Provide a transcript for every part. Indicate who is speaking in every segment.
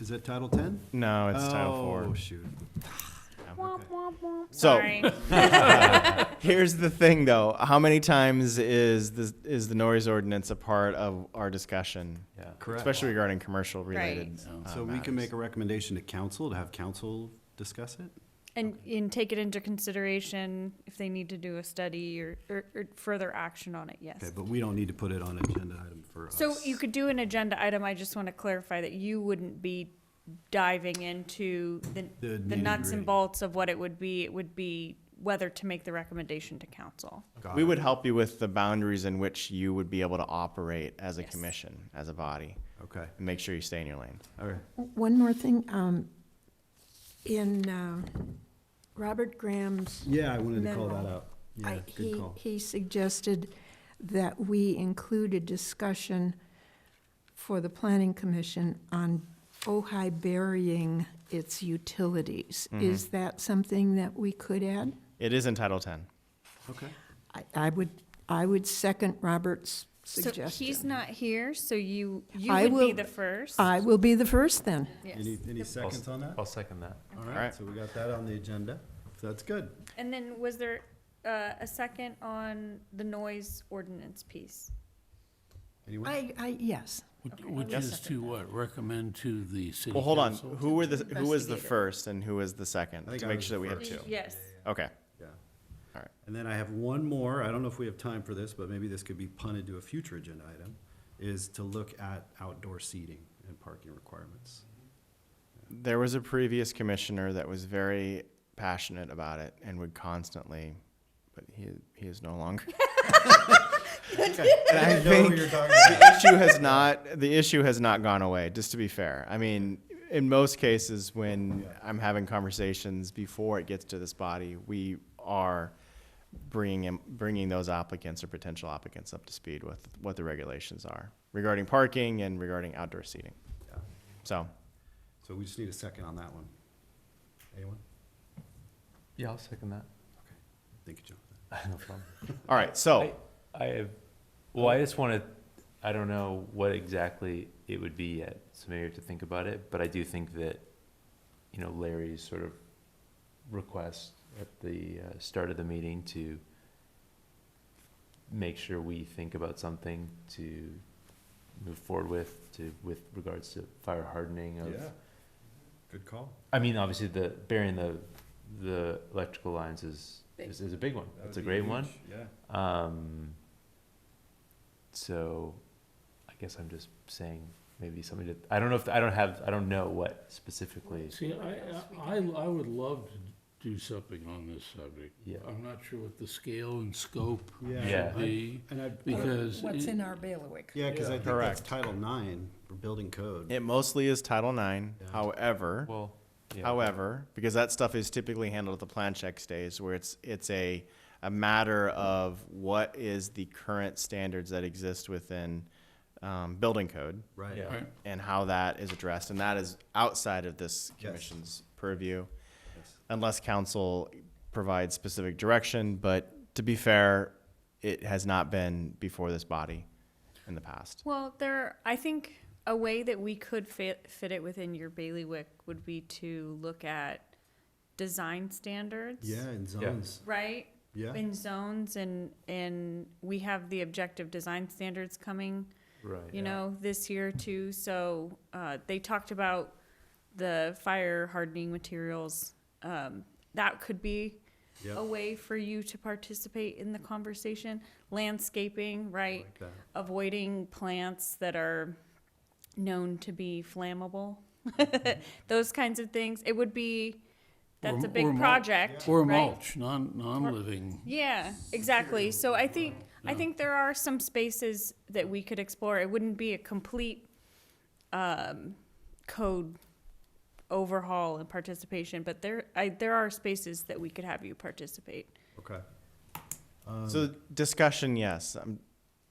Speaker 1: Is that Title 10?
Speaker 2: No, it's Title
Speaker 1: Oh,
Speaker 2: Four.
Speaker 1: shoot.
Speaker 2: So-
Speaker 3: Sorry.
Speaker 2: Here's the thing, though. How many times is this is the noise ordinance a part of our discussion? Yeah,
Speaker 1: Correct.
Speaker 2: Especially regarding commercial related. uh,
Speaker 1: So we can
Speaker 2: matters.
Speaker 1: make a recommendation to council, to have council discuss it?
Speaker 3: And, and take it into consideration if they need to do a study or, or, or further action on it,
Speaker 1: Okay,
Speaker 3: yes.
Speaker 1: but we don't need to put it on agenda item for us.
Speaker 3: So you could do an agenda item, I just want to clarify that you wouldn't be diving into the,
Speaker 1: The
Speaker 3: the nuts
Speaker 1: nitty-gritty.
Speaker 3: and bolts of what it would be, it would be whether to make the recommendation to council.
Speaker 1: Got
Speaker 2: We
Speaker 1: it.
Speaker 2: would help you with the boundaries in which you would be able to operate as a
Speaker 3: Yes.
Speaker 2: commission, as a body,
Speaker 1: Okay,
Speaker 2: and make sure you stay in your lane.
Speaker 1: all right.
Speaker 4: One more thing, um, in, uh, Robert Graham's,
Speaker 1: Yeah, I wanted to call that
Speaker 4: Memo.
Speaker 1: out. Yeah,
Speaker 4: I,
Speaker 1: good
Speaker 4: he,
Speaker 1: call.
Speaker 4: he suggested that we include a discussion for the planning commission on Ojai burying its utilities.
Speaker 1: Mm-hmm.
Speaker 4: Is that something that we could add?
Speaker 2: It is in Title Ten.
Speaker 1: Okay.
Speaker 4: I, I would, I would second Robert's
Speaker 3: So he's
Speaker 4: suggestion.
Speaker 3: not here, so you, you
Speaker 4: I
Speaker 3: would be
Speaker 4: will-
Speaker 3: the first.
Speaker 4: I will be the first then.
Speaker 3: Yes.
Speaker 1: Any, any seconds on that?
Speaker 5: I'll second that.
Speaker 1: All
Speaker 2: All
Speaker 1: right,
Speaker 2: right.
Speaker 1: so we got that on the agenda. So that's good.
Speaker 3: And then was there, uh, a second on the noise ordinance piece?
Speaker 1: Anyone?
Speaker 4: I, I, yes.
Speaker 6: Which-
Speaker 3: Okay.
Speaker 6: Which
Speaker 3: Yes.
Speaker 6: is to what? Recommend to the city
Speaker 2: Well, hold on.
Speaker 6: council?
Speaker 2: Who were the who was the
Speaker 4: Investigator.
Speaker 2: first and who was the second?
Speaker 1: I think
Speaker 2: To
Speaker 1: I
Speaker 2: make
Speaker 1: was
Speaker 2: sure that we
Speaker 1: the
Speaker 2: have two.
Speaker 3: Yes.
Speaker 2: Okay.
Speaker 1: Yeah.
Speaker 2: All right.
Speaker 1: And then I have one more, I don't know if we have time for this, but maybe this could be punted to a future agenda item, is to look at outdoor seating and parking requirements.
Speaker 2: There was a previous commissioner that was very passionate about it and would constantly, but he he is no longer. And I
Speaker 1: know
Speaker 2: think
Speaker 1: you're
Speaker 2: the issue has not the issue has not gone away. Just to be fair, I mean, in most cases, when I'm having conversations before it gets to this body, we are bringing in- bringing those applicants or potential applicants up to speed with what the regulations are regarding parking and regarding outdoor seating.
Speaker 1: Yeah.
Speaker 2: So
Speaker 1: So we just need a second on that one. Anyone?
Speaker 5: Yeah, I'll second that.
Speaker 1: Okay. Thank you, Jonathan.
Speaker 5: No problem.
Speaker 2: All right, so
Speaker 5: I- I have, well, I just want to, I don't know what exactly it would be yet, so maybe I have to think about it, but I do think that, you know, Larry's sort of request at the uh, start of the meeting to make sure we think about something to move forward with, to, with regards to fire hardening of
Speaker 1: Good call.
Speaker 5: I mean, obviously the burying the the electrical lines is is, is a big one. It's a great one.
Speaker 1: Yeah.
Speaker 5: Um, so, I guess I'm just saying maybe something to. I don't know if I don't have. I don't know what specifically.
Speaker 6: See, I, I, I would love to do something on this subject.
Speaker 5: Yeah.
Speaker 6: I'm not sure what the scale and scope
Speaker 1: Yeah.
Speaker 5: Yeah.
Speaker 6: should be,
Speaker 1: And I,
Speaker 6: because.
Speaker 7: What's
Speaker 6: it-
Speaker 7: in our bailiwick?
Speaker 1: yeah, because I think that's
Speaker 2: Correct.
Speaker 1: Title Nine for building code.
Speaker 2: it mostly is Title IX.
Speaker 1: Yeah.
Speaker 2: However,
Speaker 5: Well, yeah.
Speaker 2: However, because that stuff is typically handled at the plan check stage where it's, it's a, a matter of what is the current standards that exist within, um, building code
Speaker 1: Right.
Speaker 5: Yeah.
Speaker 6: Right.
Speaker 2: and how that is addressed. And that is outside of this
Speaker 1: Yes.
Speaker 2: commission's purview
Speaker 1: Yes.
Speaker 2: unless council provides specific direction. But to be fair, it has not been before this body in the past.
Speaker 3: Well, there, I think a way that we could fit, fit it within your bailiwick would be to look at design standards.
Speaker 1: Yeah, and zones.
Speaker 3: Right?
Speaker 1: Yeah.
Speaker 3: In zones and, and we have the objective design standards coming,
Speaker 5: Right.
Speaker 3: you know, this year too. So, uh, they talked about the fire hardening materials. Um, that could be
Speaker 1: Yeah.
Speaker 3: a way for you to participate in the conversation. Landscaping, right?
Speaker 1: Like that.
Speaker 3: avoiding plants that are known to be flammable, those kinds of things. It would be, that's
Speaker 6: Or-
Speaker 3: a big
Speaker 6: or mul-
Speaker 3: project.
Speaker 6: Or
Speaker 3: right?
Speaker 6: mulch, non, non-living.
Speaker 3: Yeah, exactly. So I think, I
Speaker 6: Yeah.
Speaker 3: think there are some spaces that we could explore. It wouldn't be a complete, um, code overhaul and participation, but there, I, there are spaces that we could have you participate.
Speaker 1: Okay. Um,
Speaker 2: So discussion, yes, um,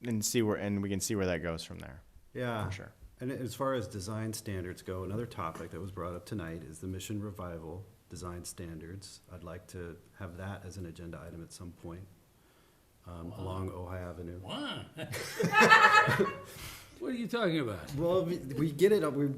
Speaker 2: and see where, and we can see where that goes from there,
Speaker 1: Yeah.
Speaker 2: for sure.
Speaker 1: And as far as design standards go, another topic that was brought up tonight is the Mission Revival Design Standards. I'd like to have that as an agenda item at some point, um, along Ojai Avenue.
Speaker 6: Why? What are you talking about?
Speaker 1: Well, we- we get it, we